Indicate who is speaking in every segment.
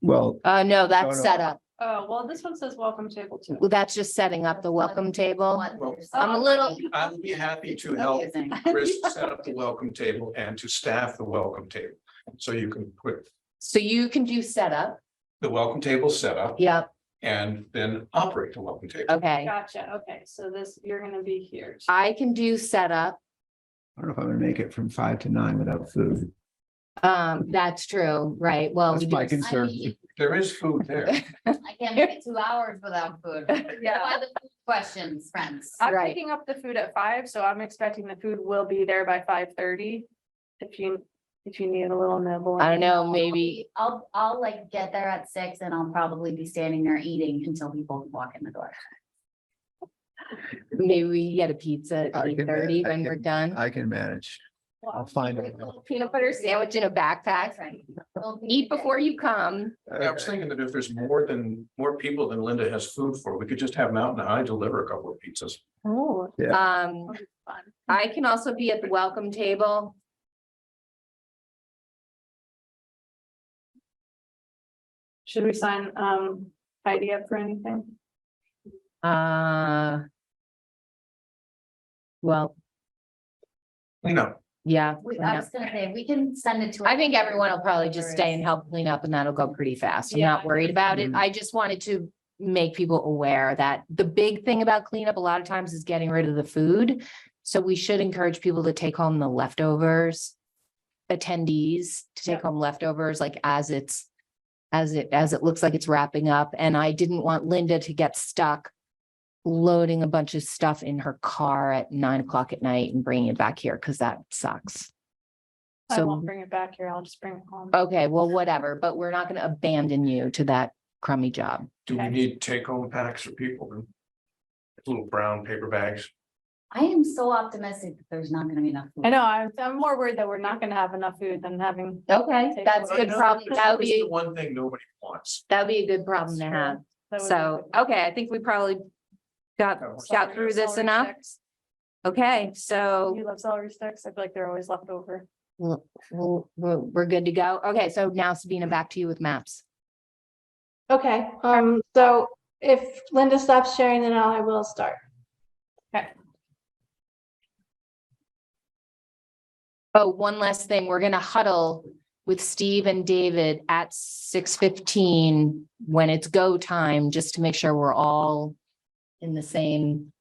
Speaker 1: Well,
Speaker 2: Uh, no,
Speaker 1: No,
Speaker 2: that's
Speaker 1: no.
Speaker 2: set up.
Speaker 3: Oh, well, this one says welcome table too.
Speaker 2: Well, That's just setting up the welcome table. I'm a little,
Speaker 4: I'll be happy to help Chris set up the welcome table and to staff the welcome table. So you can put
Speaker 2: so you can do setup.
Speaker 4: the welcome table set up
Speaker 2: Yep,
Speaker 4: and then operate the welcome table.
Speaker 2: okay. Uh,
Speaker 3: Gotcha, okay, so this, you're gonna be here.
Speaker 2: I can do setup.
Speaker 1: I don't know if I'm gonna make it from five to nine without food.
Speaker 2: Um, that's true, right? Well,
Speaker 1: That's
Speaker 2: we
Speaker 1: my
Speaker 2: do-
Speaker 1: concern.
Speaker 4: There is food there.
Speaker 5: I can't make it two hours without food. Why the food Questions, friends.
Speaker 3: I'm
Speaker 2: Right.
Speaker 3: picking up the food at five, so I'm expecting the food will be there by five thirty. If you, if you need a little nibble.
Speaker 2: I don't know, maybe,
Speaker 5: I'll, I'll like get there at six and I'll probably be standing there eating until people walk in the door.
Speaker 2: maybe we get a pizza
Speaker 1: I
Speaker 2: at
Speaker 1: can
Speaker 2: eight thirty
Speaker 1: ma- I
Speaker 2: when we're
Speaker 1: can-
Speaker 2: done.
Speaker 1: I can manage. I'll find it.
Speaker 2: Peanut butter sandwich in a backpack. Eat before you come.
Speaker 4: I was thinking that if there's more than, more people than Linda has food for, we could just have Mountain High deliver a couple of pizzas.
Speaker 3: Oh,
Speaker 2: Um,
Speaker 3: fun.
Speaker 2: I can also be at the welcome table.
Speaker 3: Should we sign, um, Heidi up for anything?
Speaker 2: Uh. Well,
Speaker 4: You know,
Speaker 2: yeah.
Speaker 5: We-
Speaker 2: clean
Speaker 5: I
Speaker 2: up.
Speaker 5: was gonna say, we can send it to.
Speaker 2: I think everyone will probably just stay and help clean up and that'll go pretty fast. I'm not
Speaker 3: Yeah.
Speaker 2: worried about it.
Speaker 1: Mhm.
Speaker 2: I just wanted to make people aware that the big thing about cleanup a lot of times is getting rid of the food. So we should encourage people to take home the leftovers. Attendees to take
Speaker 3: Yeah.
Speaker 2: home leftovers like as it's. As it, as it looks like it's wrapping up and I didn't want Linda to get stuck. Loading a bunch of stuff in her car at nine o'clock at night and bringing it back here because that sucks.
Speaker 3: I
Speaker 2: So- Oh.
Speaker 3: won't bring it back here, I'll just bring it home.
Speaker 2: Okay, well, whatever, but we're not gonna abandon you to that crummy job.
Speaker 4: do we
Speaker 3: Okay.
Speaker 4: need take home packs for people? Little brown paper bags.
Speaker 5: I am so optimistic that there's not gonna be enough. food.
Speaker 3: I know, I'm, I'm more worried that we're not gonna have enough food than having.
Speaker 2: Okay. That's a
Speaker 3: Take
Speaker 2: good
Speaker 3: away.
Speaker 2: problem. That would
Speaker 4: It's the
Speaker 2: be,
Speaker 4: One thing nobody wants.
Speaker 2: that'd be a good problem to
Speaker 3: Sure.
Speaker 2: have.
Speaker 3: That would be
Speaker 2: So,
Speaker 3: good.
Speaker 2: okay, I think we probably got,
Speaker 4: That works.
Speaker 2: got through this
Speaker 3: Celery
Speaker 2: enough.
Speaker 3: sticks.
Speaker 2: Okay, so
Speaker 3: You love celery sticks? I feel like they're always left over.
Speaker 2: we'll- we'll- we're, we're good to go. Okay, so now Sabina, back to you with maps.
Speaker 6: Okay, um, so if Linda stops sharing, then I will start.
Speaker 2: Oh, one last thing. We're gonna huddle with Steve and David at six fifteen when it's go time, just to make sure we're all in the same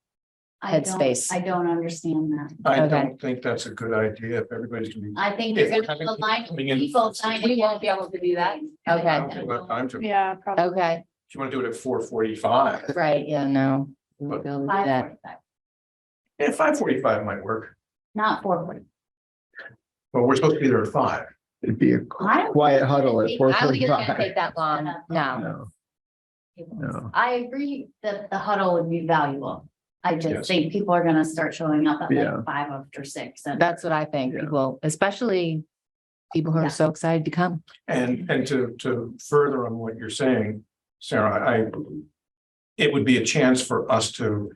Speaker 5: I don't-
Speaker 2: Headspace.
Speaker 5: I don't understand that.
Speaker 4: I
Speaker 2: Okay.
Speaker 4: don't think that's a good idea if everybody's gonna be.
Speaker 5: I think you're
Speaker 4: If we're
Speaker 5: gonna have a
Speaker 4: having
Speaker 5: line of
Speaker 4: coming in-
Speaker 5: people signing.
Speaker 2: We won't be able to do that. Okay.
Speaker 4: I don't think we'll have time to- If
Speaker 3: Yeah, probably.
Speaker 2: Okay,
Speaker 4: you want to do it at four forty-five,
Speaker 2: right, yeah, no. we'll
Speaker 4: But-
Speaker 2: go with
Speaker 5: Five
Speaker 2: that.
Speaker 5: forty-five,
Speaker 4: yeah, five forty-five might work,
Speaker 5: Not four forty.
Speaker 4: but we're supposed to be there at five.
Speaker 1: It'd be a
Speaker 5: I don't-
Speaker 1: quiet huddle at
Speaker 5: I
Speaker 1: four
Speaker 2: I don't think it's gonna
Speaker 1: forty-five.
Speaker 2: take that long, no.
Speaker 1: No,
Speaker 5: tables.
Speaker 1: no.
Speaker 5: I agree that the huddle would be valuable. I
Speaker 4: Yes.
Speaker 5: just think people are gonna start showing up at
Speaker 1: Yeah.
Speaker 5: like five after six and.
Speaker 2: That's what I think,
Speaker 1: Yeah.
Speaker 2: people, especially people who
Speaker 5: Yeah.
Speaker 2: are so excited to come.
Speaker 4: And, and to, to further on what you're saying, Sarah, I, it would be a chance for us to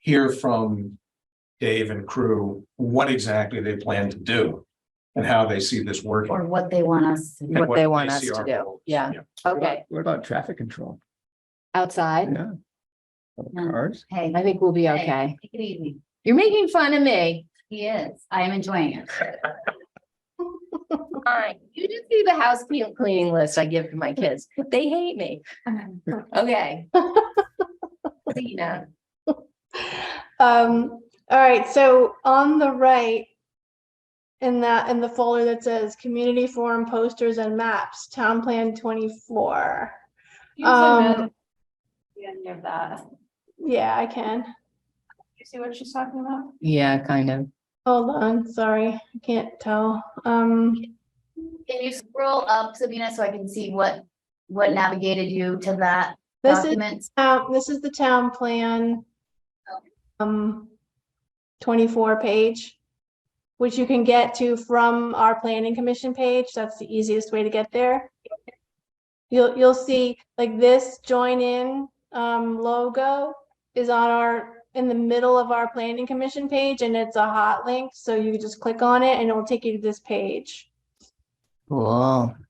Speaker 4: hear from Dave and crew, what exactly they plan to do and how they see this working.
Speaker 5: Or what they want us to.
Speaker 4: and
Speaker 2: What they want
Speaker 4: see
Speaker 2: us to
Speaker 4: our
Speaker 2: do,
Speaker 4: goals.
Speaker 2: yeah. Okay,
Speaker 1: What about traffic control?
Speaker 2: outside,
Speaker 1: Yeah. Of
Speaker 5: Yeah.
Speaker 1: Cars?
Speaker 5: Hey,
Speaker 2: I think we'll be
Speaker 5: Hey.
Speaker 2: okay.
Speaker 5: take it easy.
Speaker 2: You're making fun of me.
Speaker 5: He is. I am enjoying it.
Speaker 2: Fine, you just do the house clean- cleaning list I give to my kids. They hate me. Okay. Sabina,
Speaker 6: Um, all right, so on the right. In that, in the folder that says community forum posters and maps, town plan twenty-four.
Speaker 3: You can send
Speaker 6: Um,
Speaker 3: it. The end of that.
Speaker 6: Yeah, I can.
Speaker 3: You see what she's talking about?
Speaker 2: yeah, kind of.
Speaker 6: Hold on, sorry, I can't tell. Um,
Speaker 5: Can you scroll up, Sabina, so I can see what, what navigated you to that
Speaker 6: this is,
Speaker 5: document?
Speaker 6: town- this is the town plan. Um, twenty-four page. Which you can get to from our planning commission page. That's the easiest way to get there. You'll, you'll see like this join in um logo is on our, in the middle of our planning commission page and it's a hot link. So you just click on it and it'll take you to this page.
Speaker 2: Cool.